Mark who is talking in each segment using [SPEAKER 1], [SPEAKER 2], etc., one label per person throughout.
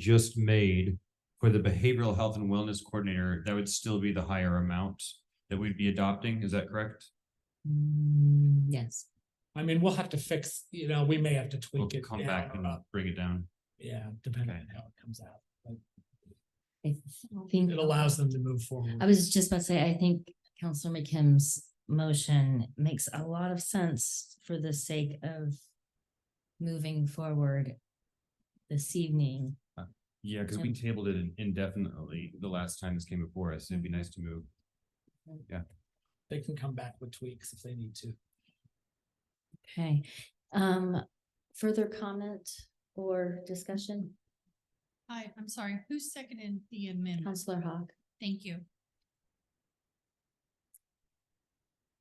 [SPEAKER 1] just made for the behavioral health and wellness coordinator, that would still be the higher amount that we'd be adopting, is that correct?
[SPEAKER 2] Mm, Yes,
[SPEAKER 3] I mean, we'll have to fix, you know, we may have to
[SPEAKER 1] We'll
[SPEAKER 3] tweak it
[SPEAKER 1] come
[SPEAKER 3] down
[SPEAKER 1] back and
[SPEAKER 3] or up,
[SPEAKER 1] bring it down.
[SPEAKER 3] yeah, depending
[SPEAKER 1] Okay.
[SPEAKER 3] on how it comes out.
[SPEAKER 2] I think,
[SPEAKER 3] It allows them to move forward.
[SPEAKER 2] I was just about to say, I think Counselor McKim's motion makes a lot of sense for the sake of moving forward this evening.
[SPEAKER 1] Yeah, because we
[SPEAKER 2] Um,
[SPEAKER 1] tabled it indefinitely the last time this came before us, it'd be nice to move.
[SPEAKER 3] They can come back with tweaks if they need to.
[SPEAKER 2] Okay, um, further comment or discussion?
[SPEAKER 4] Hi, I'm sorry, who seconded the amendment?
[SPEAKER 2] Counselor Hawk,
[SPEAKER 4] Thank you.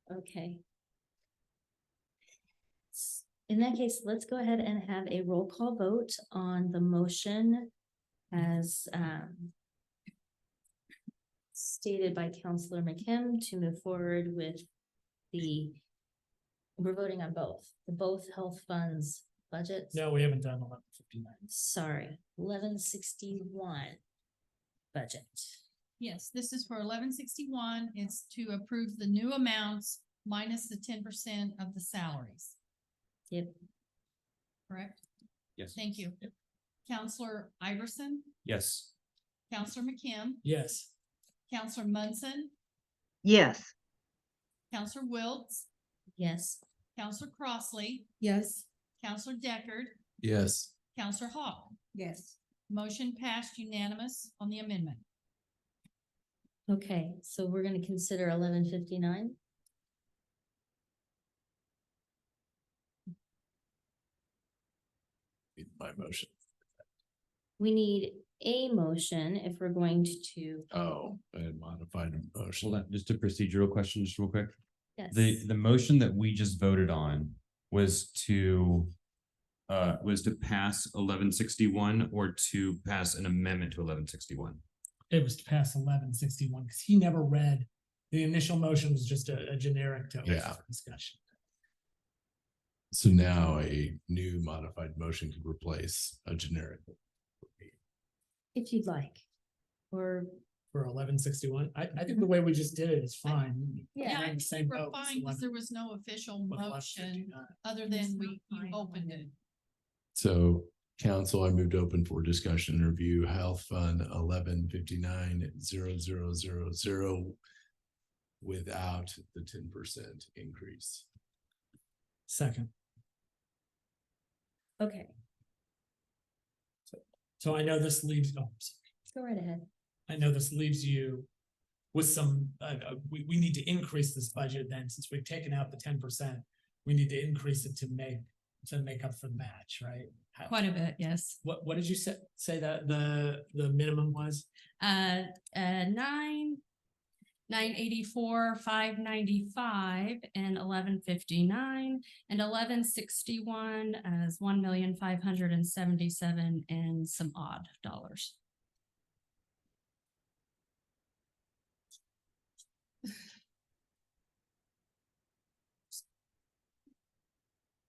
[SPEAKER 2] okay. S- In that case, let's go ahead and have a roll call vote on the motion as, um, stated by Counselor McKim to move forward with the, we're voting on both, the both health funds budgets.
[SPEAKER 3] No, we haven't done eleven fifty-nine.
[SPEAKER 2] Sorry, eleven sixty-one budget.
[SPEAKER 4] Yes, this is for eleven sixty-one. It's to approve the new amounts minus the ten percent of the salaries.
[SPEAKER 2] Yep.
[SPEAKER 4] Correct?
[SPEAKER 1] Yes.
[SPEAKER 4] Thank you.
[SPEAKER 3] Yep.
[SPEAKER 4] Counselor Iverson,
[SPEAKER 1] Yes,
[SPEAKER 4] Counselor McKim,
[SPEAKER 3] Yes,
[SPEAKER 4] Counselor Munson,
[SPEAKER 5] Yes,
[SPEAKER 4] Counselor Wiltz,
[SPEAKER 2] Yes,
[SPEAKER 4] Counselor Crossley,
[SPEAKER 6] Yes.
[SPEAKER 4] Counselor Deckard.
[SPEAKER 7] Yes.
[SPEAKER 4] Counselor Hawk.
[SPEAKER 6] Yes.
[SPEAKER 4] Motion passed unanimous on the amendment.
[SPEAKER 2] okay, so we're gonna consider eleven fifty-nine.
[SPEAKER 7] My motion.
[SPEAKER 2] We need a motion if we're going to,
[SPEAKER 7] Oh, I had modified a motion.
[SPEAKER 1] hold on, just a procedural question, just real quick.
[SPEAKER 2] yes.
[SPEAKER 1] The, the motion that we just voted on was to uh, was to pass eleven sixty-one or to pass an amendment to eleven sixty-one?
[SPEAKER 3] it was past eleven sixty-one because he never read. The initial motion was just a, a generic to open
[SPEAKER 7] Yeah.
[SPEAKER 3] for discussion.
[SPEAKER 7] So now a new modified motion could replace a generic.
[SPEAKER 2] If you'd like, or,
[SPEAKER 3] For eleven sixty-one, I, I think the way we just did it is fine.
[SPEAKER 4] Mm-hmm. Yeah, I
[SPEAKER 3] We're in the
[SPEAKER 4] think
[SPEAKER 3] same
[SPEAKER 4] we're
[SPEAKER 3] boat. It's
[SPEAKER 4] fine because
[SPEAKER 3] 11
[SPEAKER 4] there was no official
[SPEAKER 3] with
[SPEAKER 4] motion
[SPEAKER 3] 11.59.
[SPEAKER 4] other
[SPEAKER 6] It's
[SPEAKER 4] than
[SPEAKER 6] not
[SPEAKER 4] we you
[SPEAKER 6] final,
[SPEAKER 4] opened
[SPEAKER 6] is
[SPEAKER 4] it.
[SPEAKER 7] So council, I moved open for discussion and review health fund eleven fifty-nine zero zero zero zero without the ten percent increase.
[SPEAKER 3] Second.
[SPEAKER 2] okay,
[SPEAKER 3] So I know this leaves, oh, I'm sorry.
[SPEAKER 2] go right ahead.
[SPEAKER 3] I know this leaves you with some, uh, uh, we, we need to increase this budget then, since we've taken out the ten percent. We need to increase it to make, to make up for the match, right? How-
[SPEAKER 6] Quite a bit, yes.
[SPEAKER 3] What, what did you say, say that the, the minimum was?
[SPEAKER 6] Uh, uh, nine, nine eighty-four, five ninety-five and eleven fifty-nine and eleven sixty-one as one million, five hundred and seventy-seven and some odd dollars.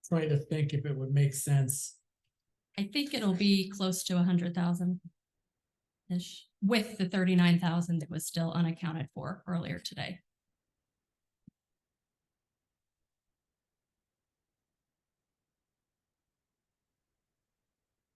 [SPEAKER 3] Trying to think if it would make sense.
[SPEAKER 6] I think it'll be close to a hundred thousand ish with the thirty-nine thousand that was still unaccounted for earlier today.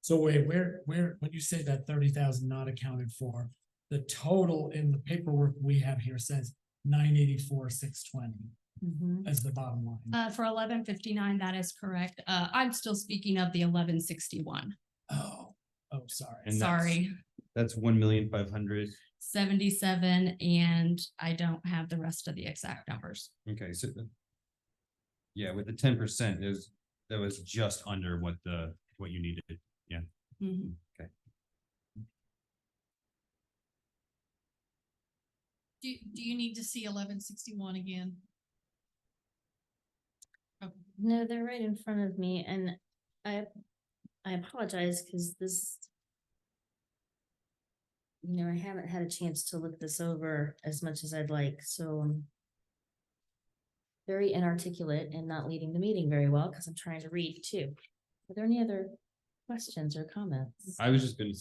[SPEAKER 3] So wait, where, where, when you say that thirty thousand not accounted for, the total in the paperwork we have here says nine eighty-four, six twenty
[SPEAKER 2] Mhm.
[SPEAKER 3] as the bottom line.
[SPEAKER 6] Uh, for eleven fifty-nine, that is correct. Uh, I'm still speaking of the eleven sixty-one.
[SPEAKER 3] Oh, oh, sorry.
[SPEAKER 1] And that's-
[SPEAKER 6] Sorry,
[SPEAKER 1] That's one million five hundred.
[SPEAKER 6] seventy-seven, and I don't have the rest of the exact numbers.
[SPEAKER 1] Okay, so. the- Yeah, with the ten percent is, that was just under what the, what you needed.
[SPEAKER 6] Mhm.
[SPEAKER 4] Do, do you need to see eleven sixty-one again?
[SPEAKER 2] No, they're right in front of me and I, I apologize because this. You know, I haven't had a chance to look this over as much as I'd like, so. I'm Very inarticulate and not leading the meeting very well because I'm trying to read too. Are there any other questions or comments?
[SPEAKER 1] I was just gonna say